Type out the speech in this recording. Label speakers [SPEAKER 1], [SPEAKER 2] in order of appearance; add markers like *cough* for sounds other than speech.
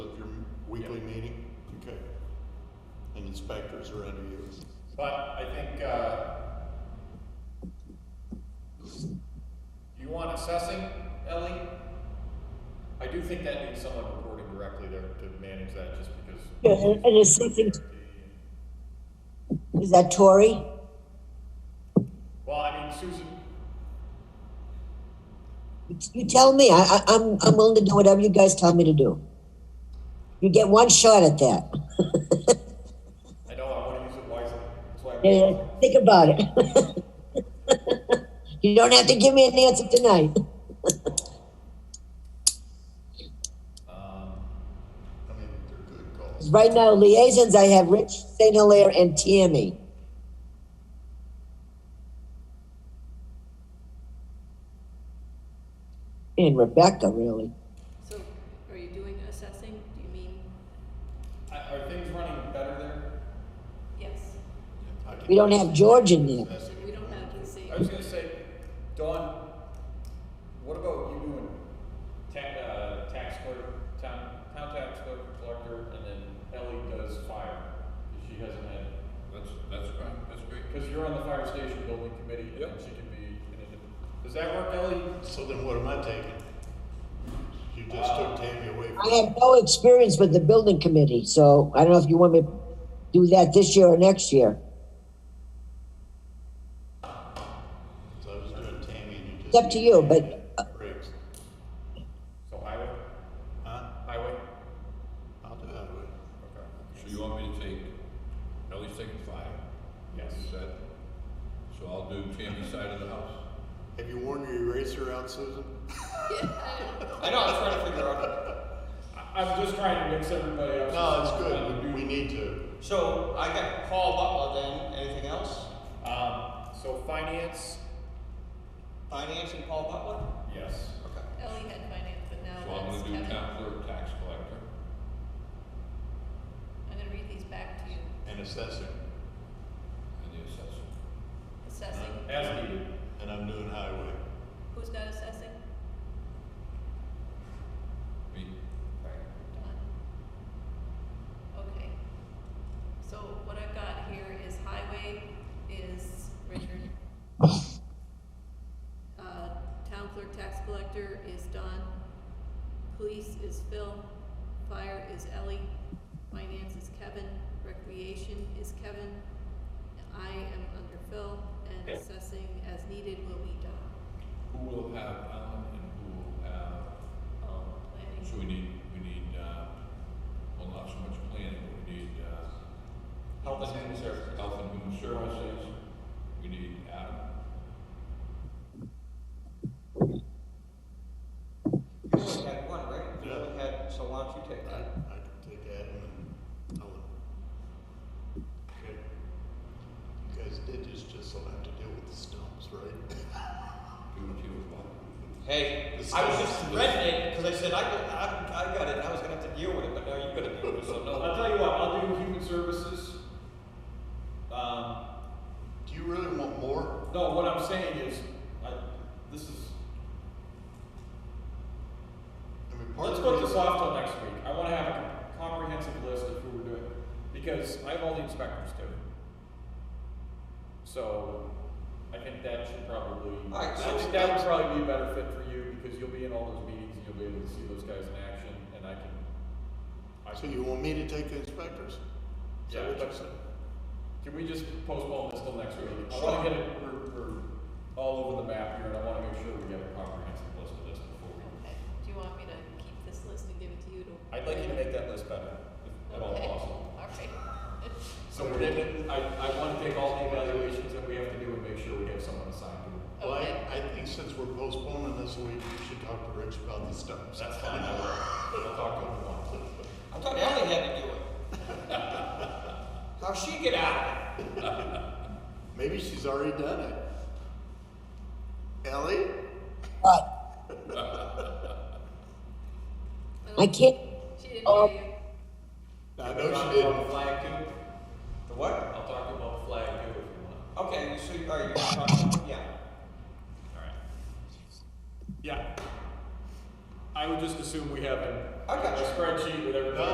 [SPEAKER 1] weekly meeting? Okay. And inspectors are under you?
[SPEAKER 2] But I think, uh, you want assessing, Ellie? I do think that needs someone reporting directly there to manage that, just because.
[SPEAKER 3] Yeah, and and it's something, is that Tory?
[SPEAKER 2] Well, I mean, Susan,
[SPEAKER 3] You tell me, I, I, I'm, I'm willing to do whatever you guys tell me to do. You get one shot at that.
[SPEAKER 2] I know I wanna use it wisely, that's why.
[SPEAKER 3] Yeah,
[SPEAKER 2] I'm-
[SPEAKER 3] Think about it. *laughs* You don't have to give me an answer tonight. *laughs*
[SPEAKER 2] Um,
[SPEAKER 1] I mean, they're good calls.
[SPEAKER 3] Right now liaisons, I have Rich St. Hilaire and Tammy. And Rebecca, really.
[SPEAKER 4] So are you doing assessing? Do you mean,
[SPEAKER 2] I- Are things running better there?
[SPEAKER 4] yes,
[SPEAKER 2] I can-
[SPEAKER 3] We don't have George in there.
[SPEAKER 2] That's-
[SPEAKER 4] we don't have the same.
[SPEAKER 2] I was gonna say, Dawn, what about you doing tax, uh, tax clerk, town, town tax clerk, collector, and then Ellie does fire? if She hasn't had,
[SPEAKER 5] That's, that's fine, that's great.
[SPEAKER 2] because you're on the fire station building committee, and then
[SPEAKER 5] Yep.
[SPEAKER 2] she can be, in it. does that work, Ellie?
[SPEAKER 1] So then what am I taking? You just took Tammy away
[SPEAKER 3] Uh, I
[SPEAKER 1] from,
[SPEAKER 3] have no experience with the building committee, so I don't know if you want me to do that this year or next year.
[SPEAKER 1] so I was doing Tammy and you just.
[SPEAKER 3] It's up to you, but uh,
[SPEAKER 1] Briggs.
[SPEAKER 2] So highway,
[SPEAKER 1] Huh?
[SPEAKER 2] highway,
[SPEAKER 1] I'll do that with you.
[SPEAKER 2] okay,
[SPEAKER 5] So you want me to take, Ellie's taking five,
[SPEAKER 2] yes.
[SPEAKER 5] is that, so I'll do Tammy's side of the house.
[SPEAKER 1] Have you worn your eraser out, Susan?
[SPEAKER 2] I know, I'm trying to figure out. I- I'm just trying to mix everybody up.
[SPEAKER 1] No, it's good. We need to.
[SPEAKER 6] So I got Paul Butler then, anything else?
[SPEAKER 2] Um, so finance,
[SPEAKER 6] Finance and Paul Butler?
[SPEAKER 2] yes.
[SPEAKER 6] Okay.
[SPEAKER 4] Ellie had finance, but now
[SPEAKER 5] So I'm
[SPEAKER 4] that's
[SPEAKER 5] gonna do
[SPEAKER 4] Kevin.
[SPEAKER 5] town clerk, tax collector.
[SPEAKER 4] I'm gonna read these back to you.
[SPEAKER 1] And assessing.
[SPEAKER 5] And the assessor.
[SPEAKER 4] Assessing,
[SPEAKER 2] As needed.
[SPEAKER 1] And I'm doing highway.
[SPEAKER 4] who's not assessing?
[SPEAKER 5] Me,
[SPEAKER 4] Don. Okay. So what I've got here is highway is Richard. Uh, town clerk, tax collector is Don. Police is Phil. Fire is Ellie. Finance is Kevin. Recreation is Kevin. I am under Phil and assessing as needed will be Don.
[SPEAKER 5] who will have Alan and who will have,
[SPEAKER 4] Um, planning.
[SPEAKER 5] so we need, we need, uh, well, not so much planning, but we need, uh,
[SPEAKER 6] Health and Human Services.
[SPEAKER 5] health and human services. We need Adam.
[SPEAKER 6] You only had one, right? You
[SPEAKER 1] Yeah.
[SPEAKER 6] only had, so why don't you take
[SPEAKER 1] I,
[SPEAKER 6] that?
[SPEAKER 1] I can take Adam and Ellen. Okay. You guys did this just so I have to deal with the stumps, right?
[SPEAKER 5] Do what you want.
[SPEAKER 6] Hey, I was just threatening it because I said I, got- I, I got it and I was gonna have to deal with it, but now you're gonna deal with it, so
[SPEAKER 2] I'll *laughs*
[SPEAKER 6] no.
[SPEAKER 2] tell you what, I'll do human services. Um,
[SPEAKER 1] Do you really want more?
[SPEAKER 2] no, what I'm saying is, I, this is,
[SPEAKER 1] I mean, part
[SPEAKER 2] let's
[SPEAKER 1] of
[SPEAKER 2] put
[SPEAKER 1] the
[SPEAKER 2] this
[SPEAKER 1] reason,
[SPEAKER 2] off till next week. I wanna have a comprehensive list of who we're doing, because I have all the inspectors too. So, I think that should probably,
[SPEAKER 6] All
[SPEAKER 2] I
[SPEAKER 6] right, so-
[SPEAKER 2] think that would probably be a better fit for you, because you'll be in all those meetings, and you'll be able to see those guys in action, and I can, I
[SPEAKER 1] so
[SPEAKER 2] can,
[SPEAKER 1] you want me to take the inspectors? Is that
[SPEAKER 2] Yeah,
[SPEAKER 1] what you
[SPEAKER 2] but-
[SPEAKER 1] said?
[SPEAKER 2] can we just postpone this till next week? I wanna get it, we're, we're all over the map here, and I wanna make sure we get a comprehensive list of this before we
[SPEAKER 4] Okay, do you want me to keep this list and give it to you to?
[SPEAKER 2] I'd like you to make that list better, if at all
[SPEAKER 4] Okay,
[SPEAKER 2] possible.
[SPEAKER 4] All right.
[SPEAKER 2] So we're gonna, I, I wanna take all the evaluations that we have to do and make sure we have someone assigned to it.
[SPEAKER 1] Well, I,
[SPEAKER 4] Okay.
[SPEAKER 1] I think since we're postponing this week, we should talk to Rich about the stumps.
[SPEAKER 2] That's fine, I will, I'll talk to him tomorrow.
[SPEAKER 6] I thought Ellie had to do it. How'd she get out of it?
[SPEAKER 1] Maybe she's already done it. Ellie?
[SPEAKER 3] But I can't,
[SPEAKER 4] She didn't
[SPEAKER 3] Oh.
[SPEAKER 4] hear you.
[SPEAKER 1] I
[SPEAKER 2] I'll
[SPEAKER 1] know she
[SPEAKER 2] talk about
[SPEAKER 1] didn't.
[SPEAKER 2] the flag too,
[SPEAKER 6] The what?
[SPEAKER 2] I'll talk about the flag too if you want.
[SPEAKER 6] Okay, so you, all right, you're talking, yeah.
[SPEAKER 2] Alright. Yeah. I would just assume we have a
[SPEAKER 6] I got
[SPEAKER 2] a
[SPEAKER 6] you.
[SPEAKER 2] spreadsheet with everything.
[SPEAKER 1] No,